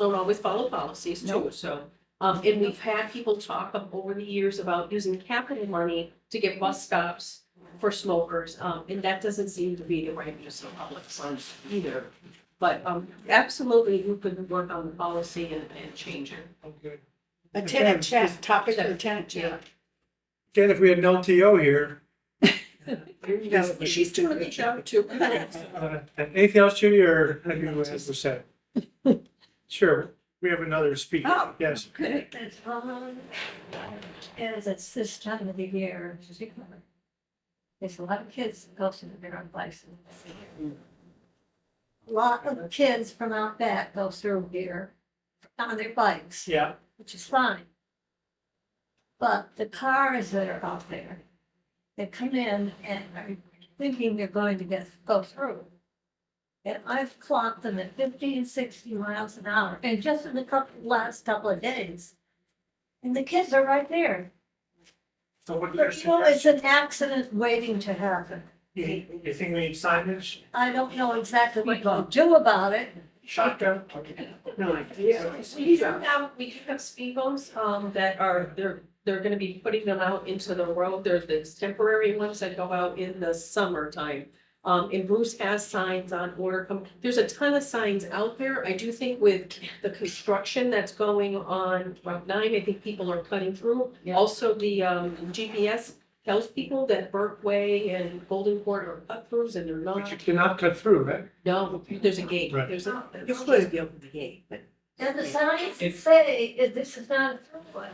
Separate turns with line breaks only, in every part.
don't always follow policies too,
Nope.
so. Um, and we've had people talk up over the years about using capital money to get bus stops for smokers, um, and that doesn't seem to be the right use of public funds either. But, um, absolutely, we could work on the policy and, and change it.
Okay.
A tenant check, topic
Check.
for tenant check.
Again, if we had an LTO here.
There you
Yes,
go.
but
She's doing the job too.
uh, Anything else, Judy, or have you had to say? Sure, we have another speaker.
Oh.
Yes,
Okay.
That's on, as it's this time of the year, in particular. There's a lot of kids that go to their own license. A Lot of kids from out back go through here on their bikes,
yeah,
which is fine. But the cars that are out there, they come in and are thinking they're going to get, go through. And I've clocked them at 50 and 60 miles an hour, and just in the couple, last couple of days. And the kids are right there.
so what do you
But you know, it's
suggest?
an accident waiting to happen.
You think you think we need signage,
I don't know exactly what to do about it.
shotgun?
No idea. We do have, we do have speed bumps, um, that are, they're, they're gonna be putting them out into the road. There's these temporary ones that go out in the summertime. Um, and Bruce has signs on order, com- there's a ton of signs out there. I do think with the construction that's going on Route nine, I think people are cutting through.
Yeah.
Also, the, um, GPS tells people that Burke Way and Golden Court are cut throughs and they're
But
not.
you cannot cut through, right?
No, there's a gate,
Right.
there's a.
You're supposed to be open to the gate, but
And the signs say that this is not a throughway.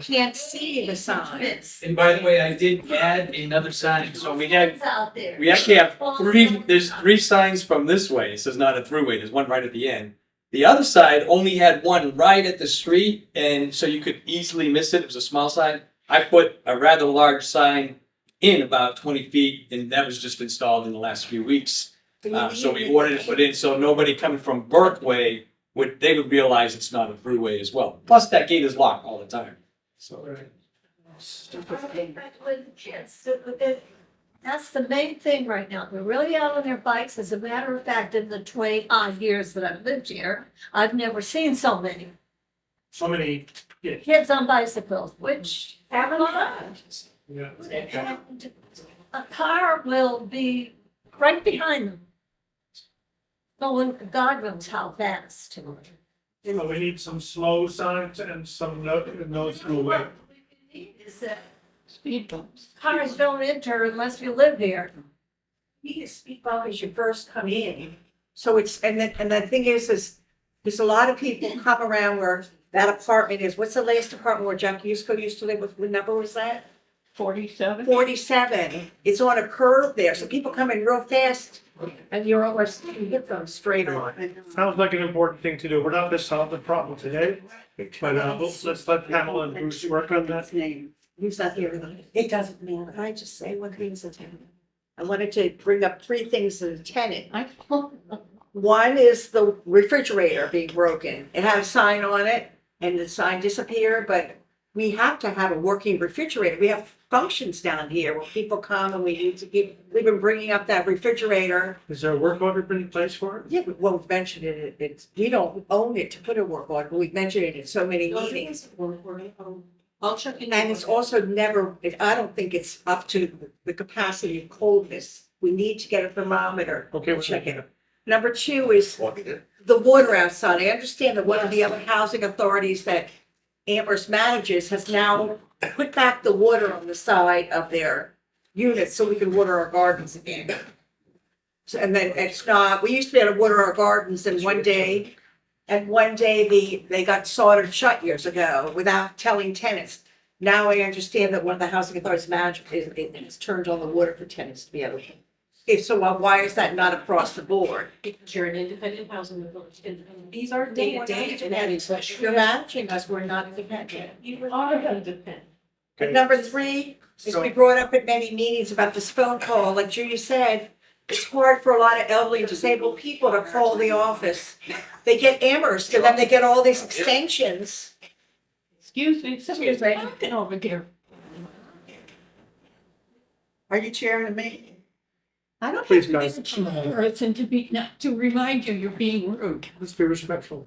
Can't see the sign.
It's
And by the way, I did add another sign, so we had,
kids out there.
we actually have three, there's three signs from this way, so it's not a throughway, there's one right at the end. The other side only had one right at the street, and so you could easily miss it, it was a small sign. I put a rather large sign in about twenty feet, and that was just installed in the last few weeks. Um, so we ordered it put in, so nobody coming from Berkway would, they would realize it's not a freeway as well. Plus, that gate is locked all the time, so.
With kids, it- it- That's the main thing right now. They're really out on their bikes. As a matter of fact, in the twenty odd years that I've lived here, I've never seen so many
So many,
kids on bicycles, which
Having fun.
yeah. okay.
and a car will be right behind them. Going, God knows how fast.
So we need some slow signs and some no, no through way.
What we need Is that
Speed bumps.
cars don't enter unless you live here.
you get speed bump as you first come in. So it's, and then, and the thing is, is there's a lot of people come around where that apartment is, what's the last apartment where John Cusco used to live with, what number was that?
Forty-seven?
Forty-seven, it's on a curve there, so people come in real fast. And you're almost, you hit them straight on.
Sounds like an important thing to do. We're not gonna solve the problem today, but, uh, let's let's let Pamela and Bruce work on that.
He's not here tonight. It doesn't matter. Can I just say one thing as a tenant? I wanted to bring up three things as a tenant.
I,
One is the refrigerator being broken. It had a sign on it and the sign disappeared, but we have to have a working refrigerator. We have functions down here where people come and we need to keep, we've been bringing up that refrigerator.
Is there a work order been in place for it?
Yeah, but, well, we've mentioned it, it- it's, we don't own it to put a work order. We've mentioned it in so many meetings.
um, I'll check in.
And it's also never, I don't think it's up to the capacity of coldness. We need to get a thermometer.
Okay, we're
Check
checking
it. Number two is the water outside. I understand that one of the
Yes.
other housing authorities that Amherst manages has now put back the water on the side of their units so we can water our gardens again. So, and then it's not, we used to be able to water our gardens and one day, and one day the, they got soldered shut years ago without telling tenants. Now I understand that one of the housing authorities management is, it has turned on the water for tenants to be able to. If so, why- why is that not across the board?
Because you're an independent housing authority, and and these are
No,
day
we're
to
not
day, and that
independent.
is what
You're
you're
managing us, we're not independent.
You are independent.
And number three is we brought up at many meetings about this phone call, like Judy said, it's hard for a lot of elderly and disabled people to call the office. They get Amherst and then they get all these extensions.
excuse me,
Excuse
somebody's
me.
talking over there.
Are you chairing the meeting?
I don't
Please,
have to be
guys.
the chairperson to be, not to remind you you're being rude.
Let's be respectful.